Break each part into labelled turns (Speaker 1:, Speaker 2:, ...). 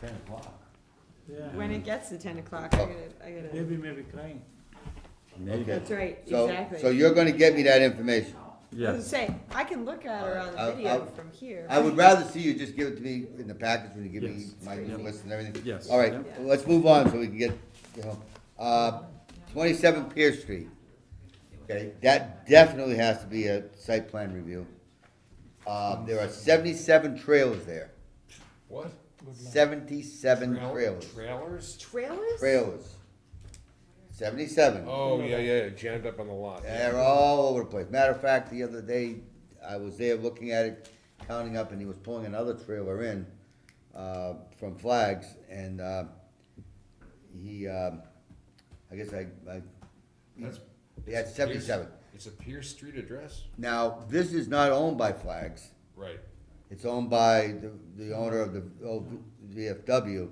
Speaker 1: ten o'clock.
Speaker 2: Yeah,
Speaker 3: When it gets to ten o'clock, I gotta, I gotta,
Speaker 2: baby may be crying.
Speaker 4: Okay,
Speaker 3: that's right,
Speaker 4: so,
Speaker 3: exactly.
Speaker 4: so you're gonna get me that information.
Speaker 3: I was gonna say, I can look at her on
Speaker 4: I- I-
Speaker 3: the video from here.
Speaker 4: I would rather see you just give it to me in the package when you give me
Speaker 5: Yes.
Speaker 4: my
Speaker 3: Yeah.
Speaker 4: list and everything.
Speaker 5: Yes.
Speaker 4: All right,
Speaker 3: Yeah.
Speaker 4: let's move on so we can get, you know, uh, twenty-seven Pierce Street. Okay, that definitely has to be a site plan review. Uh, there are seventy-seven trailers there,
Speaker 1: What?
Speaker 4: seventy-seven
Speaker 1: Trail-
Speaker 4: trailers,
Speaker 1: Trailers?
Speaker 3: Trailers?
Speaker 4: trailers. Seventy-seven.
Speaker 1: Oh, yeah, yeah, jammed up on the lot.
Speaker 4: They're all over the place. Matter of fact, the other day, I was there looking at it, counting up, and he was pulling another trailer in, uh, from Flags, and, uh, he, um, I guess I, I,
Speaker 1: That's-
Speaker 4: he had seventy-seven.
Speaker 1: It's a Pierce Street address?
Speaker 4: Now, this is not owned by Flags.
Speaker 1: Right.
Speaker 4: It's owned by the, the owner of the old VFW,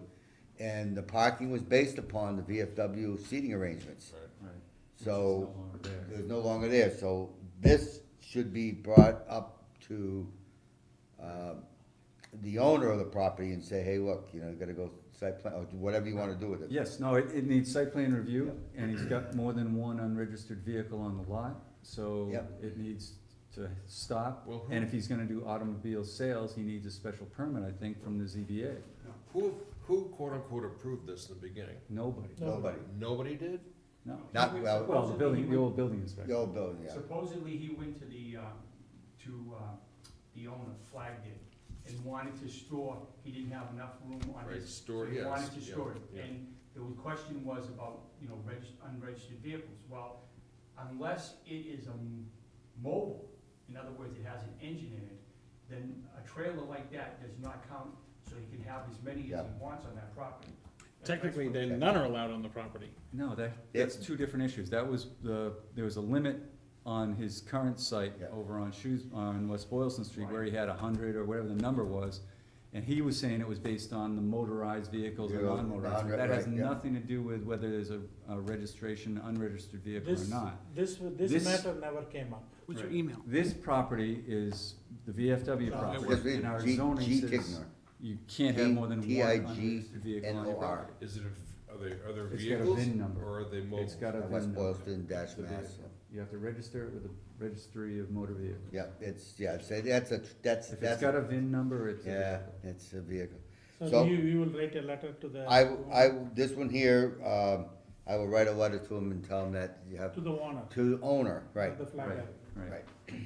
Speaker 4: and the parking was based upon the VFW seating arrangements.
Speaker 1: Right.
Speaker 5: Right.
Speaker 4: So,
Speaker 5: It's no longer there.
Speaker 4: it was no longer there, so this should be brought up to, uh, the owner of the property and say, hey, look, you know, you gotta go site plan, or do whatever you wanna do with it.
Speaker 5: Yes, no, it, it needs site plan review, and he's got more than one unregistered vehicle on the lot, so
Speaker 4: Yep.
Speaker 5: it needs to stop.
Speaker 1: Well, who-
Speaker 5: And if he's gonna do automobile sales, he needs a special permit, I think, from the ZBA.
Speaker 1: Who, who quote unquote approved this in the beginning?
Speaker 5: Nobody,
Speaker 4: Nobody,
Speaker 1: Nobody did?
Speaker 5: no.
Speaker 4: not, well,
Speaker 5: Well, the building, the old building
Speaker 4: the
Speaker 5: inspector.
Speaker 4: old building, yeah.
Speaker 6: Supposedly, he went to the, um, to uh, the owner, flagged it, and wanted to store, he didn't have enough room on
Speaker 1: Right,
Speaker 6: his.
Speaker 1: store,
Speaker 6: So
Speaker 1: yes,
Speaker 6: he wanted to
Speaker 1: yeah,
Speaker 6: store it,
Speaker 1: yeah.
Speaker 6: and the question was about, you know, reg, unregistered vehicles. Well, unless it is a m- mobile, in other words, it has an engine in it, then a trailer like that does not count, so he can have as many as
Speaker 4: Yeah.
Speaker 6: he wants on that property. That's- that's
Speaker 2: Technically,
Speaker 6: what-
Speaker 2: then none are allowed on the property.
Speaker 5: No, that, that's two different issues, that was the, there was a limit on his current site
Speaker 4: Yeah.
Speaker 5: over on Shoes, on West Boylston Street, where he had a hundred or whatever the number was, and he was saying it was based on the motorized vehicles or
Speaker 4: Yeah,
Speaker 5: non-motorized,
Speaker 4: non-
Speaker 5: that has
Speaker 4: right, yeah.
Speaker 5: nothing to do with whether there's a, a registration, unregistered vehicle or
Speaker 7: This,
Speaker 5: not.
Speaker 7: this, this
Speaker 5: This-
Speaker 7: matter never came up.
Speaker 2: What's your
Speaker 5: Right.
Speaker 2: email?
Speaker 5: This property is the VFW
Speaker 4: Just
Speaker 5: property,
Speaker 4: read
Speaker 5: and our
Speaker 4: G- G.
Speaker 5: zoning says
Speaker 4: Tigner.
Speaker 5: you can't have more than
Speaker 4: T-
Speaker 5: one
Speaker 4: I G
Speaker 5: unregistered vehicle on your
Speaker 4: N O R.
Speaker 5: property.
Speaker 1: Is it, a- are they, are there
Speaker 5: It's got a
Speaker 1: vehicles?
Speaker 5: VIN number.
Speaker 1: Or are they mobile?
Speaker 5: It's got a VIN
Speaker 4: uh, West
Speaker 5: number.
Speaker 4: Boylston dash
Speaker 5: The
Speaker 4: mass,
Speaker 5: vehicle. You have to register it with the registry of motor vehicles.
Speaker 4: yeah, it's, yeah, so that's a, that's,
Speaker 5: If it's
Speaker 4: that's,
Speaker 5: got a VIN number, it's. a
Speaker 4: yeah,
Speaker 5: vehicle.
Speaker 4: it's a vehicle. So-
Speaker 7: So you, you will write a letter to the.
Speaker 4: I, w- I w- this one here, um, I will write a letter to him and tell him that you have,
Speaker 7: To the owner.
Speaker 4: to the owner, right,
Speaker 7: The flagger.
Speaker 5: Right,
Speaker 4: right,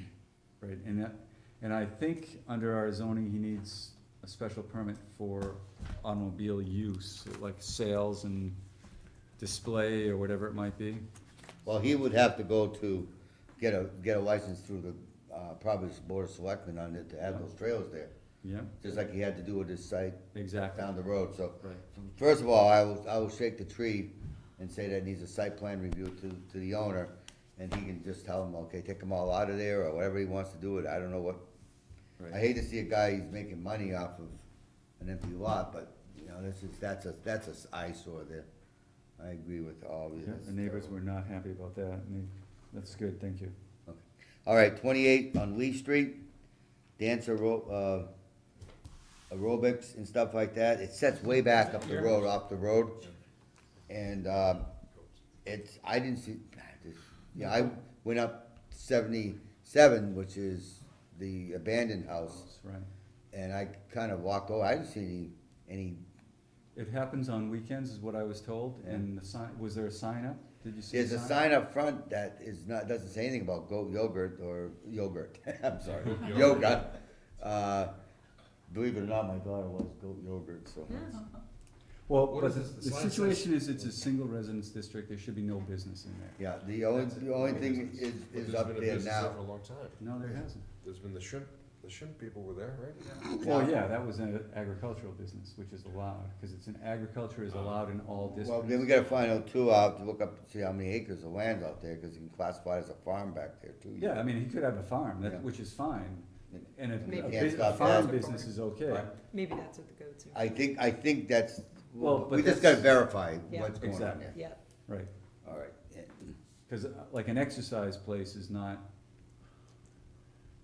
Speaker 5: right, and that, and I think under our zoning, he needs a special permit for automobile use, like sales and display or whatever it might be.
Speaker 4: Well, he would have to go to, get a, get a license through the, uh, probably it's Board of Selectmen on it to have those trails there,
Speaker 5: Yeah,
Speaker 4: just like he had to do with his site
Speaker 5: exactly,
Speaker 4: down the road, so.
Speaker 5: right.
Speaker 4: First of all, I will, I will shake the tree and say that needs a site plan review to, to the owner, and he can just tell him, okay, take them all out of there, or whatever he wants to do with it, I don't know what. I
Speaker 5: Right.
Speaker 4: hate to see a guy who's making money off of an empty lot, but, you know, this is, that's a, that's a s- eyesore there. I agree with all of you.
Speaker 5: Yeah, The neighbors were not happy about that, and they, that's good, thank you.
Speaker 4: All right, twenty-eight on Lee Street, dance aero, uh, aerobics and stuff like that, it sets way back up the road, off the road. And, um, it's, I didn't see, yeah, I went up seventy-seven, which is the abandoned house,
Speaker 5: That's right.
Speaker 4: and I kinda walked over, I didn't see any, any,
Speaker 5: It happens on weekends, is what I was told, and the sign, was there a sign up? Did you see a
Speaker 4: there's
Speaker 5: sign?
Speaker 4: a sign up front that is not, doesn't say anything about goat yogurt or yogurt, I'm sorry,
Speaker 1: Yogurt.
Speaker 4: yoga. Uh, Believe it or not, my daughter loves goat yogurt, so.
Speaker 5: Well,
Speaker 1: What
Speaker 5: but
Speaker 1: is
Speaker 5: the,
Speaker 1: this? The
Speaker 5: the
Speaker 1: sign says-
Speaker 5: situation is, it's a single residence district, there should be no business in there.
Speaker 4: Yeah, the only,
Speaker 5: That's it.
Speaker 4: the only thing is,
Speaker 1: But
Speaker 4: is
Speaker 1: there's
Speaker 4: up
Speaker 1: been a
Speaker 4: there
Speaker 1: business there
Speaker 4: now.
Speaker 1: For a long time.
Speaker 5: No, there hasn't.
Speaker 1: There's been the shrimp, the shrimp people were there, right?
Speaker 5: Well, yeah, that was an agricultural business, which is allowed, cause it's an agriculture is allowed in all
Speaker 4: Well, then we
Speaker 5: districts.
Speaker 4: gotta find out too, I'll have to look up, and see how many acres of land out there, cause you can classify it as a farm back there too.
Speaker 5: Yeah, I mean, he could have a farm,
Speaker 4: Yeah.
Speaker 5: that, which is fine, and if,
Speaker 3: Maybe
Speaker 5: a
Speaker 4: Can't
Speaker 5: bus- a
Speaker 4: stop
Speaker 5: farm
Speaker 4: that.
Speaker 5: business is okay.
Speaker 4: Right.
Speaker 3: Maybe that's what the goats are.
Speaker 4: I think, I think that's,
Speaker 5: Well, but
Speaker 4: we just
Speaker 5: that's-
Speaker 4: gotta verify
Speaker 3: Yeah.
Speaker 4: what's going on
Speaker 5: Exactly.
Speaker 4: there.
Speaker 3: Yeah,
Speaker 5: Right,
Speaker 4: Alright,
Speaker 5: cause uh, like an exercise place is not,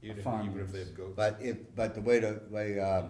Speaker 1: Even if,
Speaker 5: Farm
Speaker 1: even if
Speaker 5: use.
Speaker 1: they have goats.
Speaker 4: but if, but the way the, way, um,